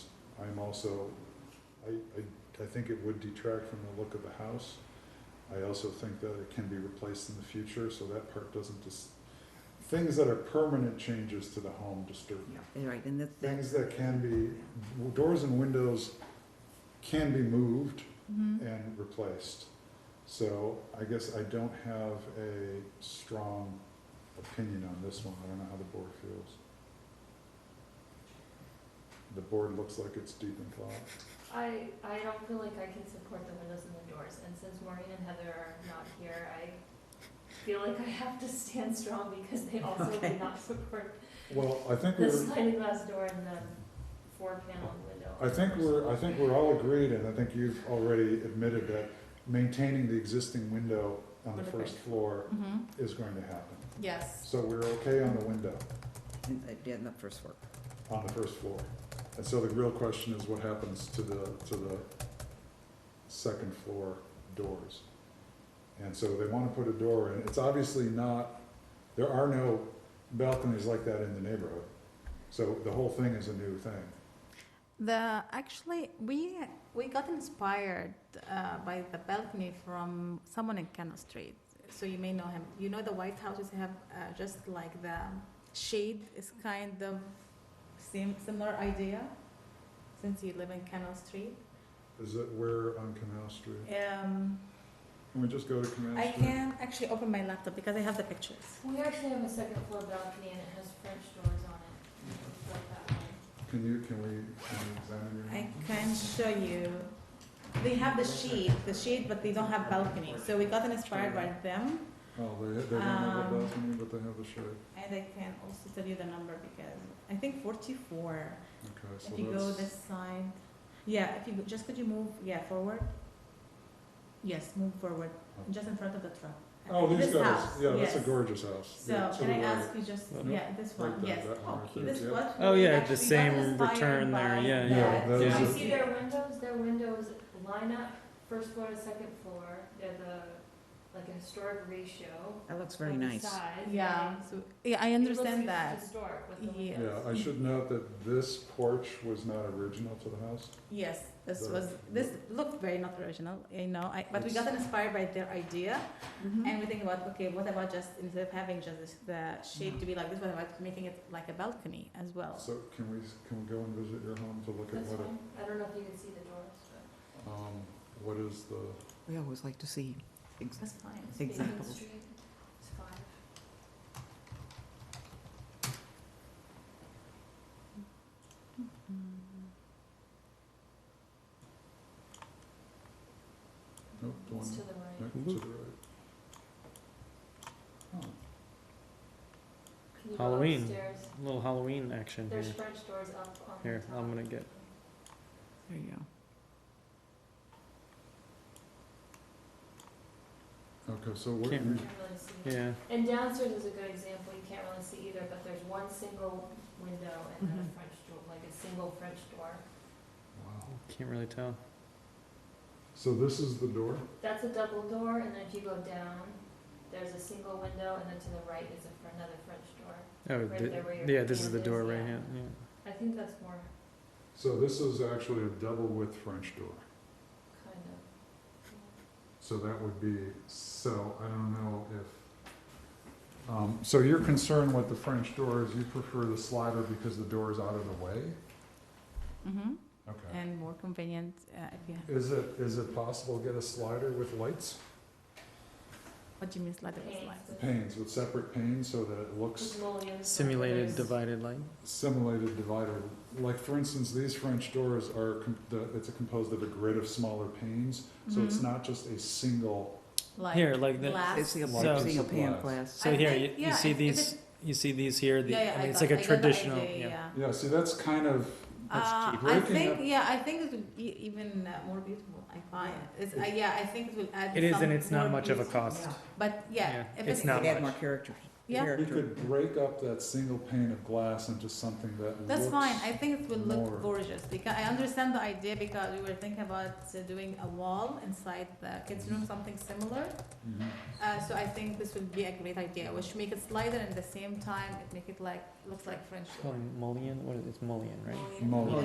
I'm also, I, I, I think it would detract from the look of the house. I also think that it can be replaced in the future, so that part doesn't just, things that are permanent changes to the home disturb me. Yeah, right, and that, that, Things that can be, doors and windows can be moved mm-hmm. Mhm. and replaced. So I guess I don't have a strong opinion on this one. I don't know how the board feels. The board looks like it's deep in thought. I, I don't feel like I can support the windows and the doors, and since Maureen and Heather are not here, I feel like I have to stand strong because they also Okay. did not support Well, I think the we're, sliding glass door and the four panel window. I think we're, I think we're all agreed, and I think you've already admitted that maintaining the existing window on the first floor Mhm. is going to happen. Yes. So we're okay on the window, and that did the first work. on the first floor. And so the real question is what happens to the, to the second floor doors? And so they wanna put a door in, it's obviously not, there are no balconies like that in the neighborhood. So the whole thing is a new thing. The actually we we got inspired uh, by the balcony from someone in Cannon Street. So you may know him. You know the White Houses have uh, just like the shade is kind of same similar idea. Since you live in Cannon Street, Is it where on Canal Street? um, Can we just go to Canal I Street? can actually open my laptop because I have the pictures. We actually have a second floor balcony and it has French doors on it. and it's like that one. Can you, can we, can we examine your? I can show you. They have the shade, the shade, but they don't have balcony. So we got inspired by them. Oh, they, they don't have a Um, balcony, but they have the shade. And I can also tell you the number because I think 44. Okay, so if you go that's- this side, yeah. If you go- just could you move, yeah, forward. Yes, move forward, just in front of the truck. Oh, these this guys, house, yeah, that's a yes. gorgeous house. So Yeah, to can the I right. ask you just Right yeah this one there, yes Uh-huh. that one oh right this there, yeah. one Oh, we yeah, the actually got same inspired return there, by yeah, yeah. that. Yeah, those I are- see their windows, their windows line up first floor to second floor, they're the, like a historic ratio. That looks very on the nice. sides, yeah and so, yeah I understand it looks that Historic with the Yeah. windows. Yeah, I should note that this porch was not original to the house. Yes, this The- was this looked very not original, you know. I, but we It's- got inspired by their idea, Mm-hmm. and we think about okay, what about just instead of having just this, the shade to be like this, what about making it like a balcony as well? So can we, can we go and visit your home to look at That's what, fine. it- I don't know if you can see the doors, but. um, what is the, We always like to see ex- That's fine. Beacon examples. Street, it's fine. nope, the one, It's to the right. nope, to the right. Oh, Huh, Can you go Halloween. upstairs? little Halloween action here. There's French doors up on the Here, top. I'm gonna get- There you go. Okay, so what, Can't You you- can't really see. Yeah, And downstairs is a good example, you can't really see either, but there's one single window and then Mm-hmm. a French door, like a single French door. wow. can't really tell. So this is the door? That's a double door, and then if you go down, there's a single window, and then to the right is a, fr- another French door. Oh, Right the- there where your yeah, this is hand the is, door right yeah. here. Yeah. I think that's more So this is actually a double width French door. kind of. So that would be, so I don't know if, um, so your concern with the French door is you prefer the slider because the door is out of the way? hmm Okay. And more convenient uh, if you. Have, Is it, is it possible to get a slider with lights? what do you mean slider is Panes like? with- Panes, with separate panes so that it with looks mullions, like Simulated there's- divided light. simulated divider. Like, for instance, these French doors are, com- the- it's composed of a grid of smaller panes, so it's Mhm. not just a single, Like Here, like the, glass. They see a So- single pane of Supplies. glass. so I here think- you, yeah, you see if- if these you see these here. The, yeah, yeah, I mean, it's got- like a I got the traditional. idea, yeah. yeah, see, that's kind of, Uh, cheap. I Breaking think up- yeah, I think it would be even uh, more beautiful. I find it's uh, yeah, I think it will add. It is, some and it's not more much of a beauty. cost. Yeah. But yeah, Yeah, if it's it's You not could add much. more character. Yeah. you character. could break up that single pane of glass into something that looks. That's fine. I think it will more. look gorgeous because I understand the idea because we were thinking about uh, doing a wall inside the kids' room, something similar. Mhm. Uh, so I think this will be a great idea, which make it slider and at the same time it make it like looks like French. It's called mullion. What is it? It's mullion, right? mullions. Mullions.